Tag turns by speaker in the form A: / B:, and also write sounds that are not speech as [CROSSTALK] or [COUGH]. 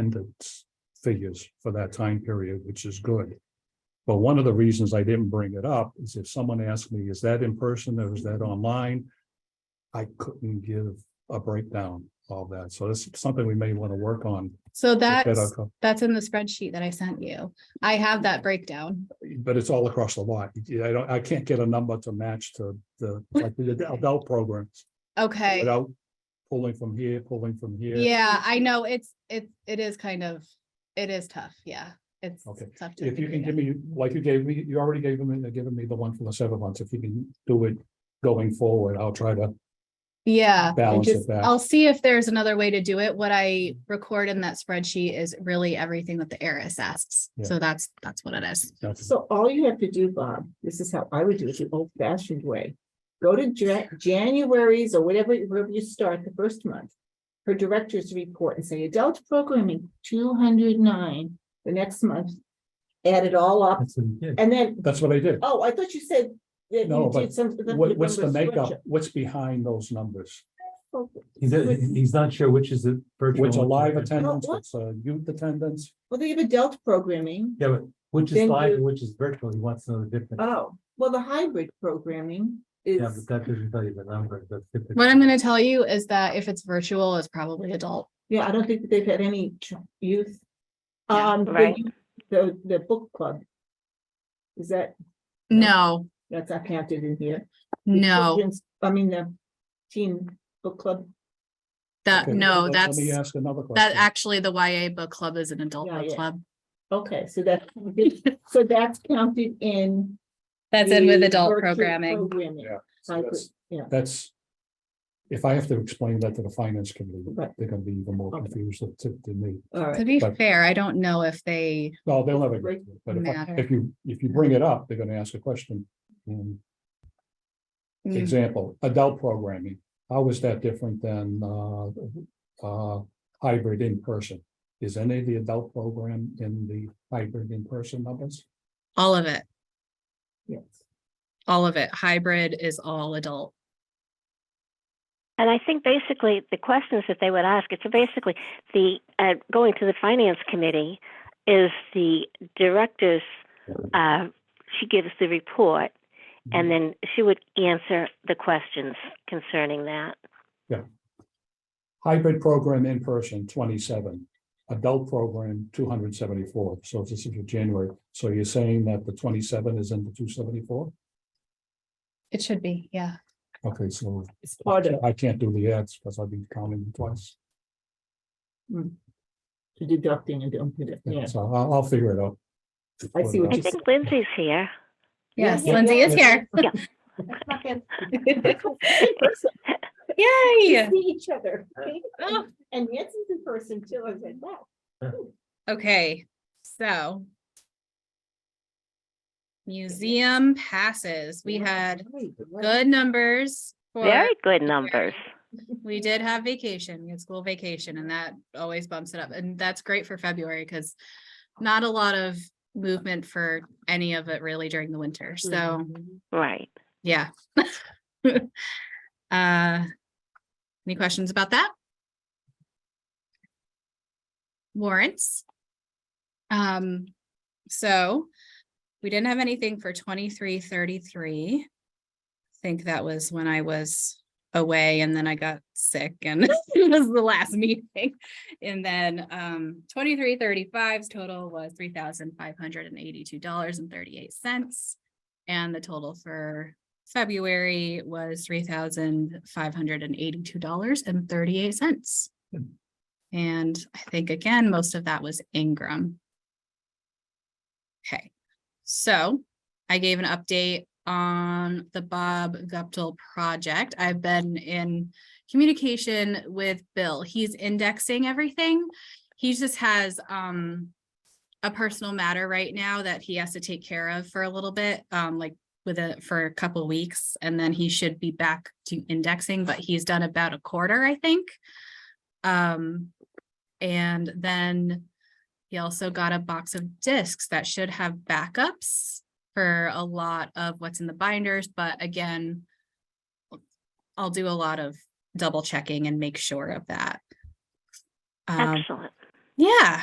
A: attendance figures for that time period, which is good. But one of the reasons I didn't bring it up is if someone asked me, is that in person or is that online? I couldn't give a breakdown of that. So that's something we may want to work on.
B: So
A: at
B: that's,
A: Fed.com.
B: that's in the spreadsheet that I sent you. I have that breakdown.
A: But it's all across the lot. I don't, I can't get a number to match to the, like
B: [LAUGHS]
A: the adult programs
B: Okay.
A: without pulling from here, pulling from here.
B: Yeah, I know. It's, it, it is kind of, it is tough. Yeah. It's
A: Okay.
B: tough to.
A: If you can
B: figure it
A: give me, like you gave me, you already gave me, given me the one for the seven months, if you can do it going forward, I'll try to.
B: Yeah, I
A: balance it
B: just,
A: back.
B: I'll see if there's another way to do it. What I
A: Mm-hmm.
B: record in that spreadsheet is really everything that the heiress asks.
A: Yeah.
B: So that's, that's what it is.
C: So all you have to do, Bob, this is how I would do it the old fashioned way. Go to Ja- January's or whatever, wherever you start the first month. For director's report and say adult programming, two hundred nine, the next month. Add it all up and then,
A: That's what I did.
C: oh, I thought you said that
A: No,
C: you
A: but
C: did some. the-
A: What, what's the
C: number
A: makeup?
C: structure.
A: What's behind those numbers?
D: He's, he's not sure which is the. virtual
A: Which a
D: and
A: live
D: which is-
A: attendance,
C: what?
A: what's a youth attendance?
C: Well, they have adult programming.
D: Yeah, but which
C: Then
D: is live
C: you-
D: and which is virtual, he wants to know the difference.
C: Oh, well, the hybrid programming
D: Yeah, but
C: is,
D: that doesn't tell you the number, that's different.
B: What I'm gonna tell you is that if it's virtual, it's probably adult.
C: yeah, I don't think that they've had any ch- youth.
B: Yeah,
C: Um, the
E: right.
C: youth- the, the book club. Is that,
B: No,
C: that's not counted in here? The
B: no,
C: children's- I mean, the teen book club.
B: that,
A: Okay,
B: Uh, no,
A: let-
B: that's,
A: Let me ask another
B: that
A: question.
B: actually the YA book club is an adult
C: Yeah,
B: book
C: yeah.
B: club.
C: Okay, so that, [LAUGHS] so that's counted in.
B: That's in with
C: the
B: adult
C: virtual
B: programming.
C: programming,
A: Yeah, so
C: hybrid,
A: that's-
C: Yeah,
A: That's, if I have to explain that to the finance committee,
C: Right.
A: they're gonna be even more
C: Okay.
A: confused than- to, to me.
C: all
B: To
C: right,
B: be
A: But-
B: fair, I don't know if they,
A: No, they'll never get to it, but if, I-
B: Matter.
A: if you, if you bring it up, they're gonna ask a question. And
C: Hmm.
B: Mm,
A: Example, adult programming, how is that different than uh uh hybrid in person? Is any of the adult program in the hybrid in person numbers?
B: all of it,
C: yes.
B: all of it. Hybrid is all adult.
E: And I think basically the questions that they would ask, it's basically the, uh, going to the finance committee is the director's, uh, she gives the report and then she would answer the questions concerning that.
A: Hybrid program in person, twenty-seven, adult program, two hundred seventy-four, so this is for January, so you're saying that the twenty-seven is in the two seventy-four?
B: It should be, yeah.
A: Okay, so
C: It's part of,
A: I can't do the ads because I've been counting twice,
C: deducting and doing, it, yeah,
A: so I'll, I'll figure it out. uh,
C: I see what
E: I
C: you said.
E: think Lindsay's here.
C: Yeah,
B: Yes,
C: yeah,
B: Lindsay
C: yeah,
B: is
C: yeah.
B: here.
C: [LAUGHS]
B: [LAUGHS]
C: That's not bad.
B: Yay!
C: See each other.
B: Oh.
C: And Nancy's in person too, I was like, wow.
B: Okay, so. Museum passes. We had good numbers. for
E: Very good numbers.
B: We did have vacation, we had school vacation, and that always bumps it up. And that's great for February because not a lot of movement for any of it really during the winter.
C: Mm-hmm.
B: So,
E: Right.
B: yeah. [LAUGHS] Uh, Any questions about that? Warrants. Um, so we didn't have anything for twenty-three thirty-three. Think that was when I was away and then I got sick and [LAUGHS] it was the last meeting. And then um 23 total was three thousand five hundred and eighty-two dollars and thirty-eight cents. And the total for February was three thousand five hundred and eighty-two dollars and thirty-eight cents. And I think again, most of that was Ingram. Okay, so I gave an update on the Bob Guptill project. I've been in communication with Bill. He's indexing everything. He just has um a personal matter right now that he has to take care of for a little bit, um like with it for a couple weeks and then he should be back to indexing, but he's done about a quarter, I think. Um, and then he also got a box of discs that should have backups for a lot of what's in the binders, but again, I'll do a lot of double checking and make sure of that. Um,
E: Excellent.
B: Yeah.